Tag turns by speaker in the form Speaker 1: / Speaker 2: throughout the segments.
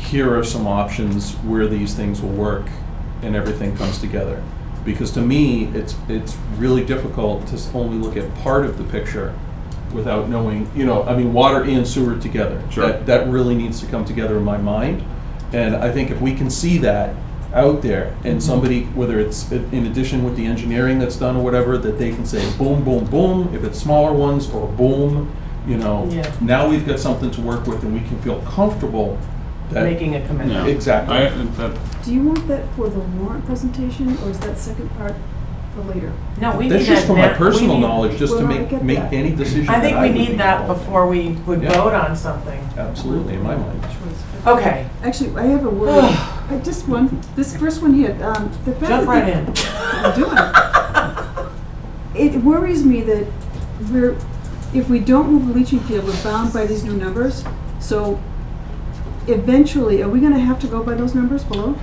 Speaker 1: here are some options where these things will work and everything comes together. Because to me, it's, it's really difficult to s- only look at part of the picture without knowing, you know, I mean, water and sewer together.
Speaker 2: Sure.
Speaker 1: That, that really needs to come together in my mind. And I think if we can see that out there and somebody, whether it's i- in addition with the engineering that's done or whatever, that they can say boom, boom, boom, if it's smaller ones or boom, you know.
Speaker 3: Yeah.
Speaker 1: Now we've got something to work with and we can feel comfortable that.
Speaker 3: making a
Speaker 2: Yeah.
Speaker 3: commitment.
Speaker 1: Exactly.
Speaker 2: I, that,
Speaker 4: Do you want that for the warrant presentation, or is that second part for later?
Speaker 3: No, we need that.
Speaker 1: That's just for my
Speaker 3: now. We
Speaker 1: personal
Speaker 3: need-
Speaker 1: knowledge, just to
Speaker 4: Well, I
Speaker 1: make,
Speaker 4: get
Speaker 1: make
Speaker 4: that.
Speaker 1: any decision
Speaker 3: I think
Speaker 1: that
Speaker 3: we
Speaker 1: would
Speaker 3: need
Speaker 1: make.
Speaker 3: that before we would
Speaker 1: Yeah.
Speaker 3: vote on something.
Speaker 1: Absolutely, in my mind.
Speaker 3: Okay,
Speaker 4: Actually, I have a word, I just want, this first one here, um, the fact that.
Speaker 3: jump right
Speaker 4: they-
Speaker 3: in.
Speaker 4: I'm doing. It worries me that we're, if we don't move the leaching field, we're bound by these new numbers. So eventually, are we gonna have to go by those numbers below?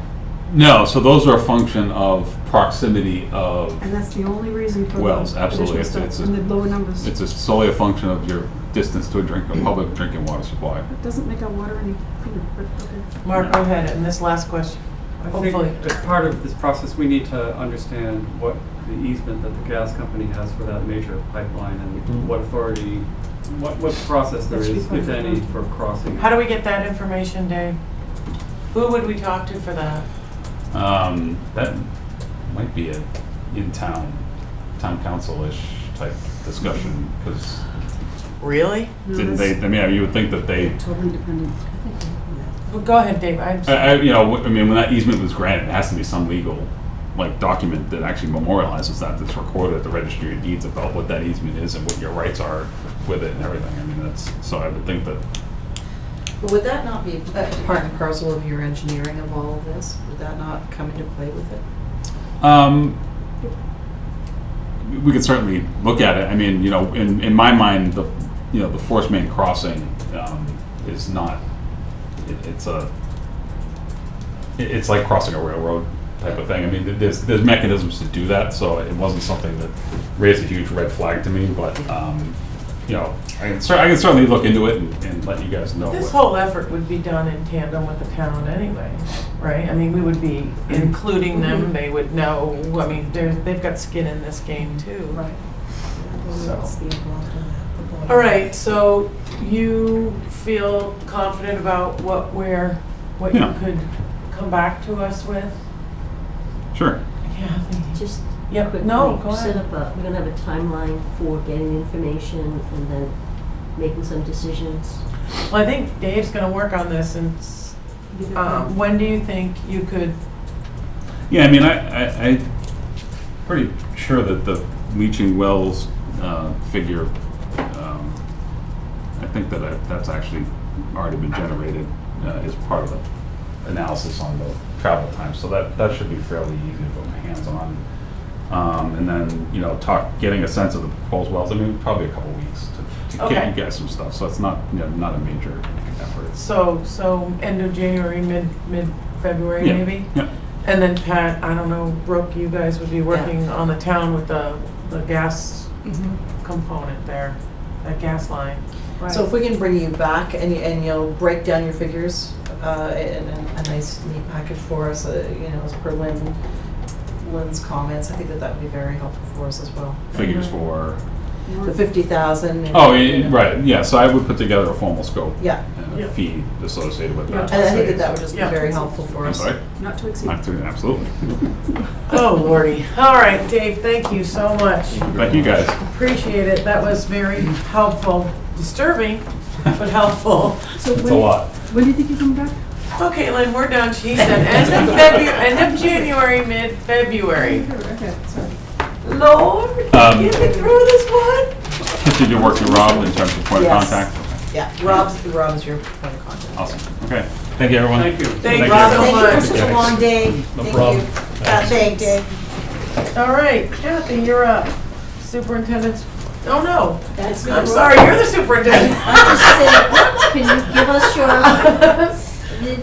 Speaker 2: no, so those are a function of proximity of,
Speaker 4: And that's the only reason for the
Speaker 2: Wells, absolutely.
Speaker 4: additional
Speaker 2: It's- it's
Speaker 4: stuff,
Speaker 2: a-
Speaker 4: and the lower numbers.
Speaker 2: it's a- solely a function of your distance to a drink, a public drinking water supply.
Speaker 4: It doesn't make our water any cleaner, but okay.
Speaker 3: Mark, go ahead, and this last question.
Speaker 5: I
Speaker 3: Hopefully.
Speaker 5: think as part of this process, we need to understand what the easement that the gas company has for that major pipeline
Speaker 1: Mm.
Speaker 5: and what authority, what, what process there
Speaker 4: That should be
Speaker 5: is,
Speaker 4: part
Speaker 5: if
Speaker 4: of it.
Speaker 5: any, for crossing.
Speaker 3: How do we get that information, Dave? Who would we talk to for that?
Speaker 2: Um, that might be a in-town, town council-ish type discussion, because
Speaker 3: Really?
Speaker 4: No,
Speaker 2: didn't
Speaker 4: that's
Speaker 2: they, I mean, you would think that they,
Speaker 4: Totally dependent.
Speaker 3: Well, go ahead, Dave, I'm,
Speaker 2: I,
Speaker 3: sorry.
Speaker 2: I, you know, I mean, when that easement was granted, it has to be some legal, like, document that actually memorializes that, that's recorded at the registry of deeds about what that easement is and what your rights are with it and everything. I mean, that's, so I would think that
Speaker 6: But would that not be a part and parcel of your engineering of all of this? Would that not come into play with it?
Speaker 2: Um, we could certainly look at it. I mean, you know, in, in my mind, the, you know, the force main crossing, um, is not, it, it's a, it, it's like crossing a railroad type of thing. I mean, th- there's, there's mechanisms to do that, so it wasn't something that raised a huge red flag to me, but, um, you know, I can cer- I can certainly look into it and, and let you guys know.
Speaker 3: this
Speaker 2: what-
Speaker 3: whole effort would be done in tandem with the town anyway, right? I mean, we would be including them, they would know, I mean, they're, they've got skin in this game too. Right. So.
Speaker 6: That's the involvement of the board.
Speaker 3: All right, so you feel confident about what we're, what you
Speaker 2: Yeah.
Speaker 3: could come back to us with?
Speaker 2: Sure.
Speaker 3: Yeah, I think-
Speaker 7: Just
Speaker 3: Yep,
Speaker 7: quickly,
Speaker 3: no, go
Speaker 7: set
Speaker 3: ahead.
Speaker 7: up a, we're gonna have a timeline for getting information and then making some decisions.
Speaker 3: Well, I think Dave's gonna work on this and, s- um, when do you think you could,
Speaker 2: Yeah, I mean, I, I, I'm pretty sure that the leaching wells uh, figure, um, I think that I, that's actually already been generated uh, as part of the analysis on the travel time, so that, that should be fairly easy to put my hands on. Um, and then, you know, talk, getting a sense of the proposed wells, I mean, probably a couple weeks to, to
Speaker 3: Okay.
Speaker 2: get you guys some stuff, so it's not, you know, not a major effort.
Speaker 3: so, so end of January, mid, mid-February
Speaker 2: Yeah,
Speaker 3: maybe?
Speaker 2: Yeah,
Speaker 3: And then Pat, I don't know, Brooke, you guys would be working on the town with the, the gas Mm-hmm. component there, that gas line.
Speaker 6: So if we can bring you back and, you- and you'll break down your figures uh, in a a nice neat package for us, uh, you know, as per Lynn, Lynn's comments, I think that that would be very helpful for us as well.
Speaker 2: figures
Speaker 3: Uh-huh.
Speaker 2: for,
Speaker 6: The fifty thousand.
Speaker 2: oh, yeah, right, yeah, so I would put together a formal scope.
Speaker 6: Yeah,
Speaker 2: and
Speaker 3: Yeah.
Speaker 2: a fee associated with that.
Speaker 6: and I think that that would just be
Speaker 3: Yeah.
Speaker 6: very helpful for
Speaker 2: I'm
Speaker 6: us.
Speaker 2: sorry?
Speaker 4: Not to exceed.
Speaker 2: Not to- Absolutely.
Speaker 3: Oh, lordy. All right, Dave, thank you so much.
Speaker 2: Thank you, guys.
Speaker 3: Appreciate it. That was very helpful. Disturbing, but helpful.
Speaker 4: So
Speaker 2: It's
Speaker 4: when-
Speaker 2: a lot.
Speaker 4: When do you think you come back?
Speaker 3: Okay, Lynn, we're done. She said end of February, end of January, mid-February.
Speaker 4: Okay, sorry.
Speaker 3: Lord,
Speaker 2: Um,
Speaker 3: get me through this one.
Speaker 2: Did you work with Rob in terms of point of
Speaker 6: Yes.
Speaker 2: contact?
Speaker 6: Yeah, Rob's, Rob's your point of contact.
Speaker 2: Awesome, okay. Thank you, everyone.
Speaker 5: Thank you.
Speaker 3: Thank
Speaker 2: you.
Speaker 3: Rob so
Speaker 2: Thank
Speaker 3: much.
Speaker 2: such a long
Speaker 6: day.
Speaker 2: No
Speaker 6: Thank
Speaker 2: problem.
Speaker 6: you. Uh, Thanks, Dave.
Speaker 3: All right, Kathy, you're up. Superintendent's, oh no,
Speaker 7: That's
Speaker 3: I'm sorry, you're the superintendent.
Speaker 7: I'm just saying, can you give us your?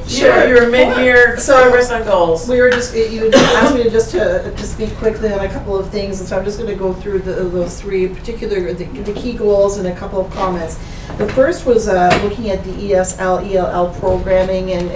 Speaker 3: Sure, your mid-year
Speaker 6: So-
Speaker 3: progress on goals.
Speaker 6: We were just, you had asked me to just to, to speak quickly on a couple of things, and so I'm just gonna go through the, those three particular, the, the key goals E and a couple of comments. The first was, uh, looking at the ESL, ELL programming and,